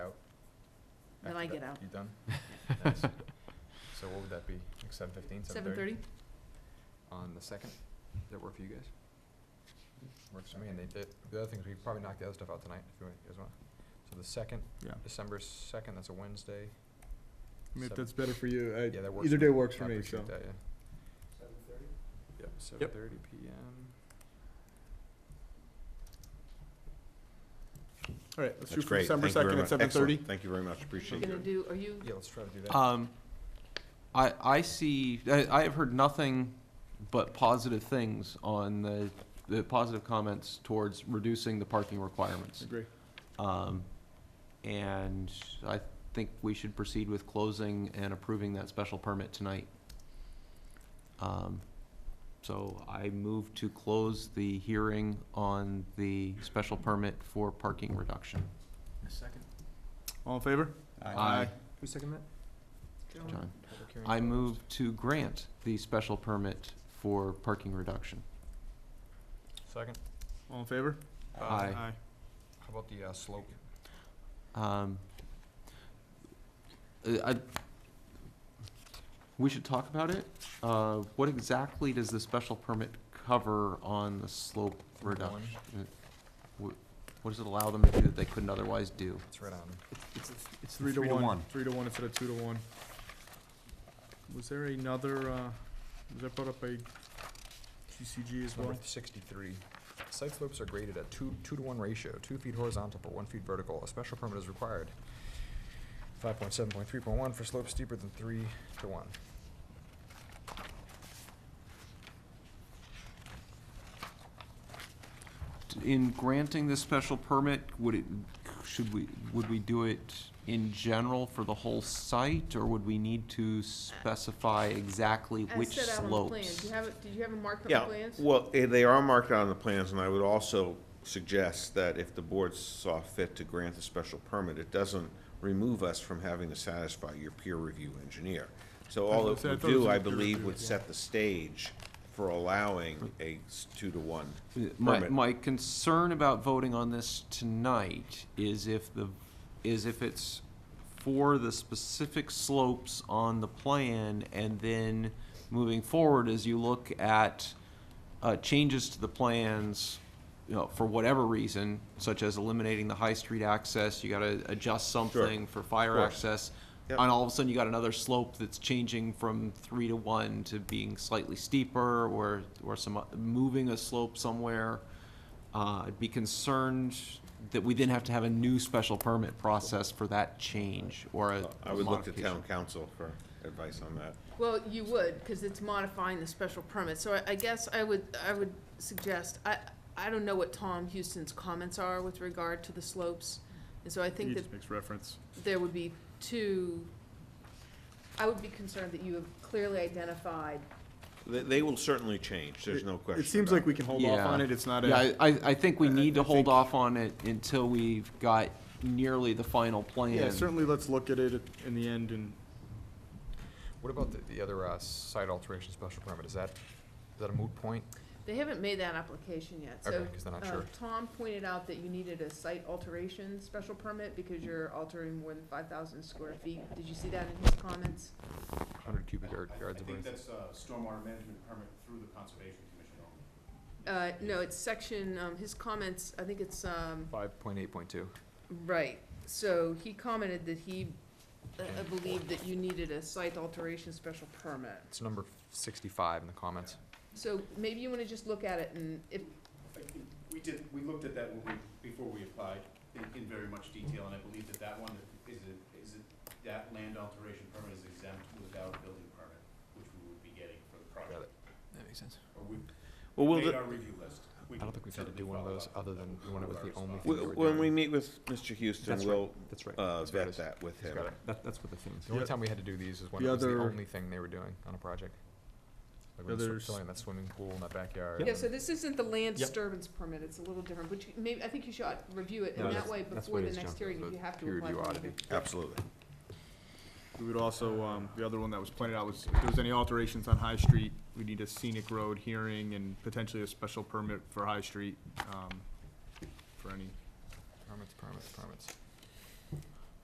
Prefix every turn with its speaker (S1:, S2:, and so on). S1: I get out.
S2: You done? Nice. So what would that be, like seven fifteen,
S1: Seven thirty?
S2: On the second, does that work for you guys? Works for me, and they did, the other thing is we could probably knock the other stuff out tonight, if you guys want. So the second,
S3: Yeah.
S2: December second, that's a Wednesday.
S3: I mean,
S2: Seven-
S3: if that's better for you, I,
S2: Yeah, that works.
S3: either
S2: for
S3: day
S2: me.
S3: works for
S2: I
S3: me, so.
S2: appreciate that, yeah. Yep, seven thirty PM.
S3: All right, let's
S4: That's
S3: shoot for
S4: great.
S3: December
S4: Thank you very
S3: second at
S4: much.
S3: seven thirty.
S4: Excellent. Thank you very much,
S1: You're
S4: appreciate
S1: gonna
S4: it.
S1: do, are you,
S2: Yeah, let's try to do that.
S5: Um, I, I see, I, I have heard nothing but positive things on the, the positive comments towards reducing the parking requirements.
S3: Agree.
S5: Um, and I think we should proceed with closing and approving that special permit tonight. Um, so I move to close the hearing on the special permit for parking reduction.
S2: Second.
S3: All in favor?
S5: Aye.
S2: Who's second that?
S5: John.
S2: Public hearing
S5: I
S2: closed.
S5: move to grant the special permit for parking reduction.
S2: Second.
S3: All in favor?
S2: Uh,
S5: Aye.
S2: How about the uh, slope?
S5: Um, uh, I, we should talk about it. Uh, what exactly does the special permit cover on the slope reduction? Uh, What does it allow them to do that they couldn't otherwise do?
S2: It's right on.
S3: It's, it's three to one, three to one instead of two to one. Was there another, uh, was that brought up by CCG as well?
S2: Number sixty-three, site slopes are graded at two, two to one ratio, two feet horizontal per one feet vertical. A special permit is required. Five point seven point three point one for slopes steeper than three to one.
S5: In granting this special permit, would it, should we, would we do it in general for the whole site? Or would we need to specify exactly
S1: as
S5: which
S1: set out on the plan,
S5: slopes?
S1: do you have, it? did you have it marked on
S4: Yeah,
S1: the plans?
S4: well, eh, they are marked out on the plans, and I would also suggest that if the board saw fit to grant the special permit, it doesn't remove us from having to satisfy your peer review engineer. So all
S3: I
S4: it
S3: thought it
S4: would
S3: was
S4: do,
S3: in
S4: I
S3: the peer
S4: believe,
S3: review,
S4: would
S3: yeah.
S4: set the stage for allowing a s- two-to-one
S5: My,
S4: permit.
S5: my concern about voting on this tonight is if the, is if it's for the specific slopes on the plan, and then moving forward, as you look at, uh, changes to the plans, you know, for whatever reason, such as eliminating the High Street access, you gotta adjust something for fire
S4: course.
S5: access.
S4: Yep.
S5: And all of a sudden, you got another slope that's changing from three to one to being slightly steeper or, or some, o- moving a slope somewhere. Uh, I'd be concerned that we then have to have a new special permit process for that change or a
S4: Uh, I would look to
S5: modification.
S4: town council for advice on that.
S1: Well, you would, because it's modifying the special permit, so I, I guess I would, I would suggest, I, I don't know what Tom Houston's comments are with regard to the slopes, and so I
S3: He
S1: think that
S3: just makes reference.
S1: there would be two, I would be concerned that you have clearly identified,
S4: They, they will certainly change, there's
S3: It-
S4: no question
S3: It seems
S4: about
S3: like we can hold off
S5: Yeah.
S3: on it, it's not
S5: Yeah,
S3: a,
S5: I, I I think we
S3: I-
S5: need
S3: I
S5: to hold
S3: think-
S5: off on it until we've got nearly the final plan.
S3: yeah, certainly let's look at it in the end and,
S2: What about the, the other uh, site alteration special permit? Is that, is that a moot point?
S1: they haven't made that application yet, so.
S2: Okay, because they're not
S1: uh,
S2: sure.
S1: Tom pointed out that you needed a site alteration special permit because you're altering more than five thousand square feet, did you see that in his comments?
S2: Hundred cubic yard-
S6: I- I
S2: yards of
S6: think
S2: earth.
S6: that's a stormwater management permit through the Conservation Commission only.
S1: Uh, no, it's section, um, his comments, I think it's, um,
S2: Five point eight point two.
S1: Right, so he commented that he, uh,
S2: Okay.
S1: believed that you needed a site alteration special permit.
S2: It's number sixty-five in the comments.
S1: So maybe you wanna just look at it and if,
S6: I think We did, we looked at that when we, before we applied in, in very much detail, and I believe that that one is, a- is it, that land alteration permit is exempt without a building permit, which we would be getting for the
S2: Got it.
S6: project.
S2: That makes sense.
S6: Or we
S4: Well, we'll,
S6: made
S4: the-
S6: our review list.
S2: I don't think we've had to do one of those other than when it was the only thing.
S4: we-
S2: that we're
S4: when we
S2: doing.
S4: meet with Mr. Houston,
S2: That's right.
S4: we'll
S2: That's right.
S4: uh,
S2: That's what it
S4: vet
S2: is.
S4: that with
S2: He's
S4: him.
S2: got it.
S5: that's what the thing is.
S2: The only
S3: Yeah.
S2: time we had to do these is when
S3: The
S2: it was the
S3: other-
S2: only thing they were doing on a project. Like when they started
S3: Others-
S2: filling that swimming pool in that backyard.
S1: yeah, so this isn't the
S2: Yep.
S1: land disturbance permit, it's a little different, but you, maybe, I think you should review it,
S2: No,
S1: and that
S2: that's-
S1: way
S2: that's
S1: before
S2: what it
S1: the
S2: is,
S1: next
S2: John.
S1: hearing, if
S2: The
S1: you have to
S2: peer
S1: apply
S2: review
S1: for
S2: audit.
S1: it.
S4: Absolutely.
S3: we would also, um, the other one that was pointed out was, if there was any alterations on High Street, we need a scenic road hearing and potentially a special permit for High Street, um, for any
S2: Permits, permits, permits.